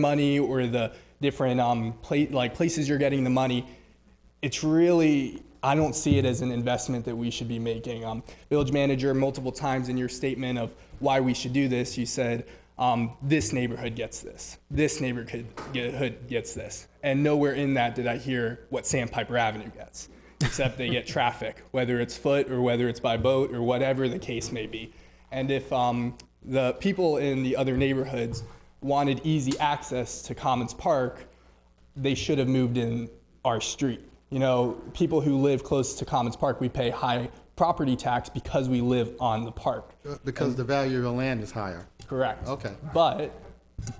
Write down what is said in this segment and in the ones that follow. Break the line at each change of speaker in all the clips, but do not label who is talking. money or the different um, pla- like places you're getting the money, it's really I don't see it as an investment that we should be making. Um, village manager, multiple times in your statement of why we should do this, you said um, this neighborhood gets this, this neighborhood get- hood gets this, and nowhere in that did I hear what Sandpiper Avenue gets, except they get traffic, whether it's foot or whether it's by boat or whatever the case may be. And if um, the people in the other neighborhoods wanted easy access to Commons Park, they should have moved in our street. You know, people who live close to Commons Park, we pay high property tax because we live on the park.
Because the value of the land is higher.
Correct.
Okay.
But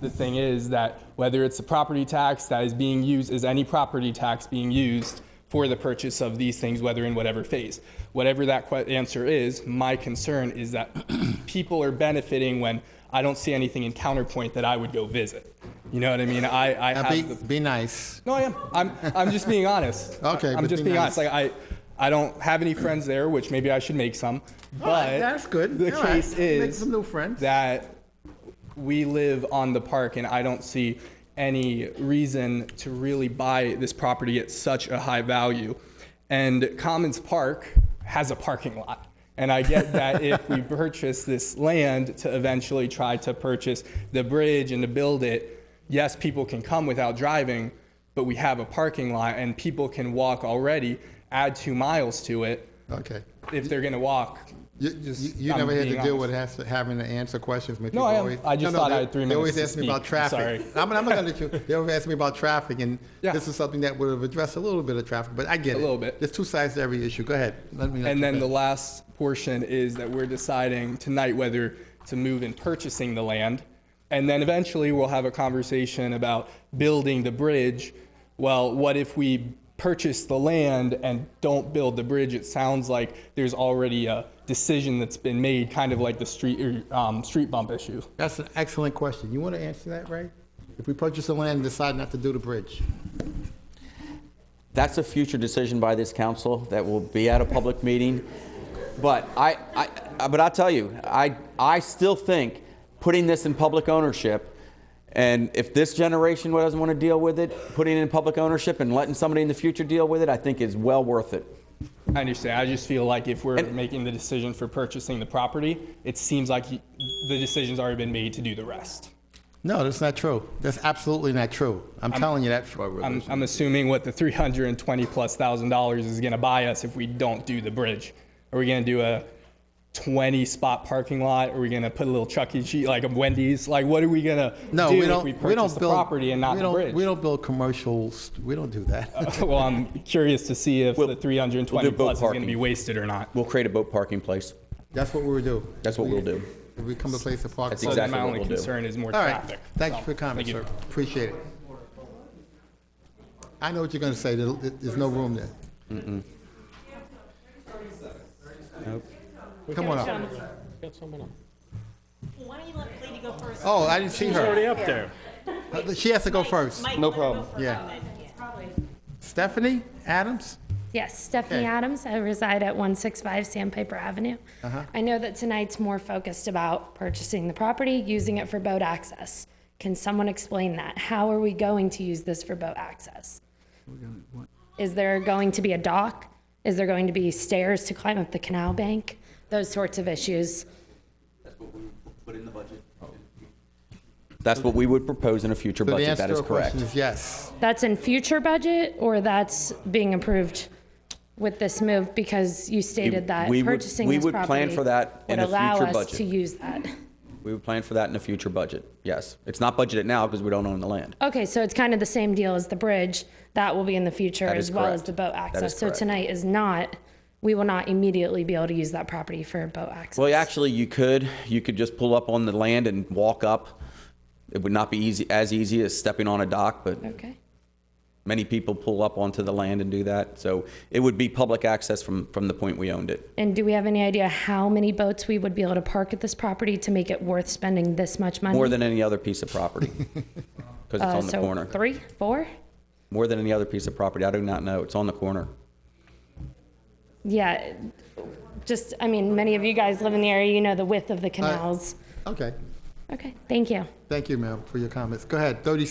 the thing is that whether it's a property tax that is being used, is any property tax being used for the purchase of these things, whether in whatever phase? Whatever that que- answer is, my concern is that people are benefiting when I don't see anything in counterpoint that I would go visit. You know what I mean? I, I
Now,
have
be,
the
be nice.
no, I am. I'm, I'm just being honest.
Okay,
I'm
but
just
be
being honest.
nice.
Like I, I don't have any friends there, which maybe I should make some. But
right, that's good.
The
All right,
case
make
is
some new friends.
that we live on the park, and I don't see any reason to really buy this property at such a high value. And Commons Park has a parking lot. And I get that if we purchase this land to eventually try to purchase the bridge and to build it, yes, people can come without driving, but we have a parking lot and people can walk already, add two miles to it.
Okay.
If they're going to walk,
You, you- you
I'm
never had to
being
deal with has to, having to answer questions. when
No,
people
I am.
always-
I just
No, no,
thought
they-
I had three
They always
minutes
ask
to
me about
speak. I'm
traffic.
sorry.
I'm, I'm not gonna let you. They always ask me about traffic, and
Yeah.
this is something that would have addressed a little bit of traffic. But I get it.
little bit.
There's two sides to every issue. Go ahead. Let me. let
And
you
then the
finish.
last portion is that we're deciding tonight whether to move in purchasing the land. And then eventually we'll have a conversation about building the bridge. Well, what if we purchase the land and don't build the bridge? It sounds like there's already a decision that's been made, kind of like the street, or, um, street bump issue.
That's an excellent question. You want to answer that, Ray? If we purchase the land and decide not to do the bridge,
That's a future decision by this council that will be at a public meeting. But I, I, I- but I'll tell you, I, I still think putting this in public ownership, and if this generation doesn't want to deal with it, putting it in public ownership and letting somebody in the future deal with it, I think is well worth it.
I understand. I just feel like if we're
And-
making the decision for purchasing the property, it seems like y- the decision's already been made to do the rest.
no, that's not true. That's absolutely not true. I'm, telling you that.
I'm, I'm assuming what the 320 plus thousand dollars is going to buy us if we don't do the bridge. Are we going to do a 20 spot parking lot? Are we going to put a little Chuck E. Cheese, like a Wendy's? Like, what are we going to
no,
do
we don't.
if we purchase
don't
the
build
property and not
we
the
don't,
bridge? Uh-huh.
We don't build commercials. We don't do that.
well, I'm curious to see if the
We'll-
320
we'll do boat
plus is going to
parking.
be wasted or not.
We'll create a boat parking place.
That's what we would do.
That's what
We-
we'll do.
If we come to place to park.
That's
So then
exactly
my
what
only
we'll do.
concern is more
All right,
traffic.
thank you
So,
for your comment,
thank
sir.
you.
Appreciate it. I know what you're going to say, There- there's no room there. Come on up.
Why don't you let Lady go first?
Oh, I didn't see her. Uh,
up there.
She has to go first.
Mike, let her go
problem.
first,
Yeah.
and then-
Stephanie Adams?
Yes, Stephanie
Okay.
Adams. I reside at 165 Sandpiper Avenue.
Uh-huh.
I know that tonight's more focused about purchasing the property, using it for boat access. Can someone explain that? How are we going to use this for boat access? Is there going to be a dock? Is there going to be stairs to climb up the canal bank? Those sorts of issues.
That's what we would propose in a future
So the
budget.
answer
That
to
is
her question
correct.
is yes.
That's in future budget or that's being approved with this move because you stated that
we would-
purchasing
we
this
would plan
property
for that in
would
a
allow
future
us
budget.
to use that.
We would plan for that in a future budget. Yes. It's not budgeted now because we don't own the land.
Okay, so it's kind of the same deal as the bridge. That will be in the future
That
as
is
well as
correct.
the boat
That is
access. So
correct.
tonight is not, we will not immediately be able to use that property for boat access.
Well, actually, you could. You could just pull up on the land and walk up. It would not be easy, as easy as stepping on a dock, but
Okay,
many people pull up onto the land and do that. So it would be public access from, from the point we owned it.
and do we have any idea how many boats we would be able to park at this property to make it worth spending this much money?
More than any other piece of property. Because it's
Uh,
on the
so
corner.
Three, four?
More than any other piece of property. I do not know. It's on the corner.
Yeah, just, I mean, many of you guys live in the area, you know the width of the canals.
Okay,
Okay, thank you.
thank you, ma'am, for your comments. Go ahead, 30